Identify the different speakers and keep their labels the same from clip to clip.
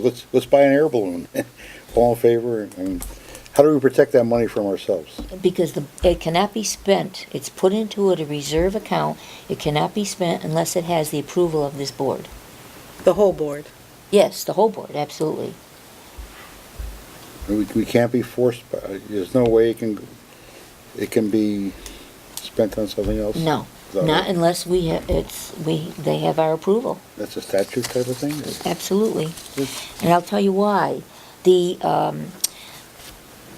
Speaker 1: Let's, let's buy an air balloon. All in favor? And how do we protect that money from ourselves?
Speaker 2: because the, it cannot be spent, it's put into a reserve account, it cannot be spent unless it has the approval of this board.
Speaker 3: The whole board.
Speaker 2: Yes, the whole board, absolutely.
Speaker 1: We, we can't be forced, by- there's no way it can, it can be spent on something else?
Speaker 2: No,
Speaker 1: Is that
Speaker 2: not
Speaker 1: right?
Speaker 2: unless we have, it's, we, they have our approval,
Speaker 1: That's a statute type of thing? Is-
Speaker 2: absolutely.
Speaker 1: is-
Speaker 2: And I'll tell you why. The, um,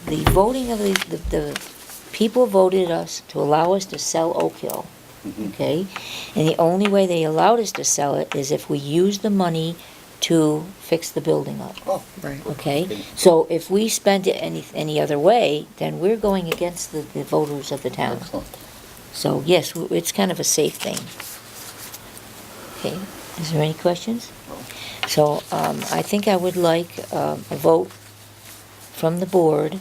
Speaker 2: the voting of the, the, the people voted us to allow us to sell Oak Hill,
Speaker 1: Mm-hmm.
Speaker 2: okay? And the only way they allowed us to sell it is if we used the money to fix the building up.
Speaker 1: Oh,
Speaker 3: Right.
Speaker 2: Okay, so if we spend it any, any other way, then we're going against the, the voters of the town.
Speaker 1: excellent.
Speaker 2: So yes, w- it's kind of a safe thing. Okay, is there any questions? So, um, I think I would like, um, a vote from the board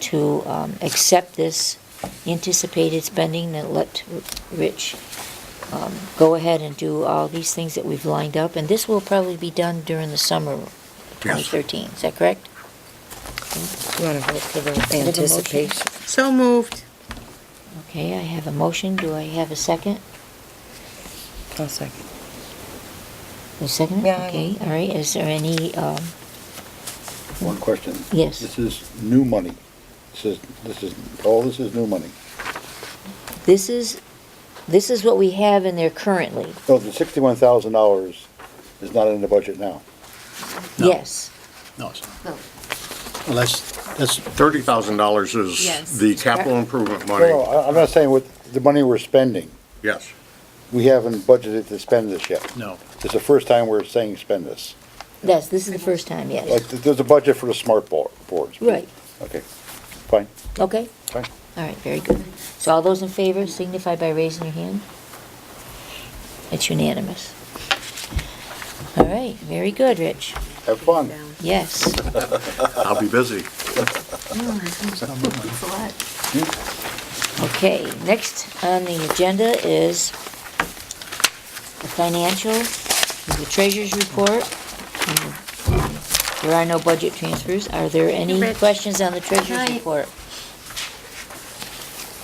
Speaker 2: to, um, accept this anticipated spending and let R- Rich, um, go ahead and do all these things that we've lined up. And this will probably be done during the summer of twenty thirteen, is that correct?
Speaker 3: You want to vote for the
Speaker 2: motion?
Speaker 3: anticipation? So moved.
Speaker 2: Okay, I have a motion. Do I have a second?
Speaker 3: I'll second.
Speaker 2: A second?
Speaker 3: Yeah, I-
Speaker 2: Okay, all right, is there any, um,
Speaker 1: One question.
Speaker 2: Yes.
Speaker 1: This is new money. This is, this is, all this is new money.
Speaker 2: this is, this is what we have in there currently.
Speaker 1: No, the sixty-one thousand dollars is not in the budget now.
Speaker 4: No.
Speaker 2: Yes,
Speaker 4: No, it's not.
Speaker 2: No.
Speaker 4: Well, that's, that's,
Speaker 5: Thirty thousand dollars
Speaker 2: Yes.
Speaker 5: is the
Speaker 2: Uh,
Speaker 5: capital improvement
Speaker 1: No,
Speaker 5: money,
Speaker 1: No, I- I'm not saying what, the money we're spending.
Speaker 5: yes.
Speaker 1: We haven't budgeted to spend this yet.
Speaker 4: no,
Speaker 1: It's the first time we're saying spend this.
Speaker 2: yes, this is the first time, yes.
Speaker 1: Like, th- there's a budget for the smart board, boards.
Speaker 2: Right,
Speaker 1: Okay, fine,
Speaker 2: okay,
Speaker 1: fine.
Speaker 2: all right, very good. So all those in favor signify by raising your hand. It's unanimous. All right, very good, Rich.
Speaker 1: Have fun.
Speaker 2: Yes.
Speaker 5: I'll be busy.
Speaker 2: Okay, next on the agenda is the financial, the treasurer's report. There are no budget transfers. Are there any
Speaker 3: Rich.
Speaker 2: questions on the treasurer's
Speaker 3: Hi.
Speaker 2: report?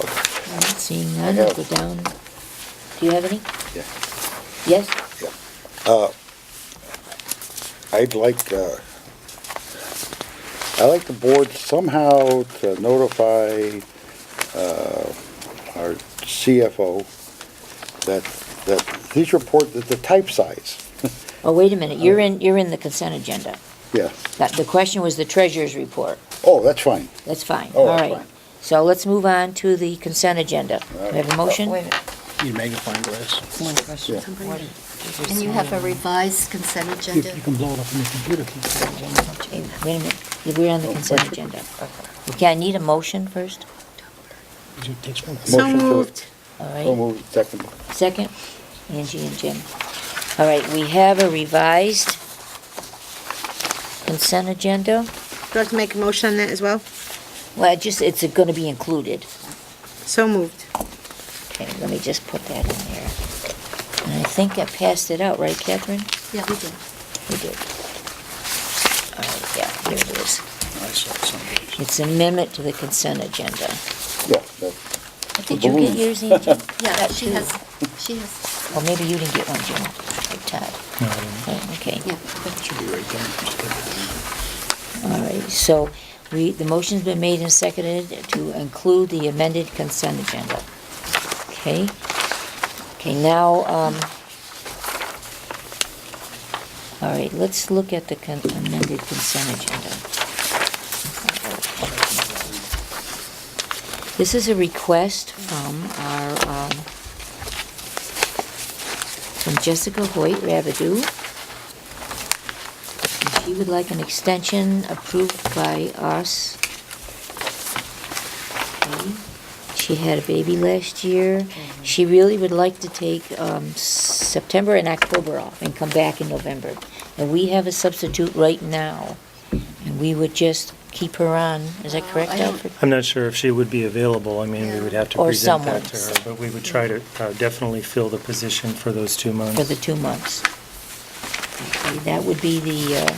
Speaker 2: All right, Seeing none,
Speaker 1: I
Speaker 2: I'll
Speaker 1: have-
Speaker 2: go down. Do you have any?
Speaker 1: Yeah.
Speaker 2: Yes?
Speaker 1: I'd like, uh, I'd like the board somehow to notify, uh, our CFO that, that these report, that the type size,
Speaker 2: Oh, wait a minute, you're in, you're in the consent agenda.
Speaker 1: yeah.
Speaker 2: That- The question was the treasurer's report.
Speaker 1: Oh, that's fine.
Speaker 2: That's fine,
Speaker 1: Oh,
Speaker 2: all
Speaker 1: that's
Speaker 2: right.
Speaker 1: fine.
Speaker 2: So let's move on to the consent agenda. Do I have a
Speaker 1: Oh,
Speaker 2: motion?
Speaker 6: Wait,
Speaker 4: you magnifying glass.
Speaker 3: One question.
Speaker 6: and you have a revised consent
Speaker 4: You
Speaker 6: agenda?
Speaker 4: you can blow it up on your computer. keep it on the-
Speaker 2: Wait a minute, we're on the consent agenda. Okay, I need a motion first,
Speaker 4: It takes one.
Speaker 3: So
Speaker 1: Motion to-
Speaker 3: moved.
Speaker 2: all
Speaker 1: So
Speaker 2: right?
Speaker 1: moved, second.
Speaker 2: Second, Angie and Jim. All right, we have a revised consent agenda.
Speaker 3: Do I have to make a motion on that as well?
Speaker 2: Well, I just, it's gonna be included.
Speaker 3: So moved.
Speaker 2: Okay, let me just put that in there. And I think I passed it out, right, Catherine?
Speaker 6: Yeah, we did.
Speaker 2: We did. All right, yeah, here it is.
Speaker 4: I saw somebody.
Speaker 2: It's amendment to the consent agenda.
Speaker 1: Yeah, that-
Speaker 2: Did you get
Speaker 1: Balloon.
Speaker 2: yours, Angie?
Speaker 6: Yeah, she
Speaker 2: too.
Speaker 6: has, she has,
Speaker 2: Or maybe you didn't get one, Jim, or Todd.
Speaker 4: No, I didn't.
Speaker 2: Oh, Okay,
Speaker 6: yeah.
Speaker 4: It should be right there. Just put it
Speaker 2: all right, so we, the motion's been made and seconded to include the amended consent agenda. Okay? Okay, now, um, all right, let's look at the con- amended consent agenda. This is a request from our, um, from Jessica Hoyt Rabidou. And She would like an extension approved by us. Okay. She had a baby last year.
Speaker 6: Mm-hmm.
Speaker 2: She really would like to take um, September and October off and come back in November. And we have a substitute right now, and we would just keep her on. Is that
Speaker 6: Well,
Speaker 2: correct,
Speaker 6: I don't-
Speaker 2: Alfred?
Speaker 7: I'm not sure if she would be available. I mean, we would have to
Speaker 2: Or
Speaker 7: present that to her,
Speaker 2: someone.
Speaker 7: but we would try to uh, definitely fill the position for those two
Speaker 2: For
Speaker 7: months.
Speaker 2: the two months. That would be the, uh,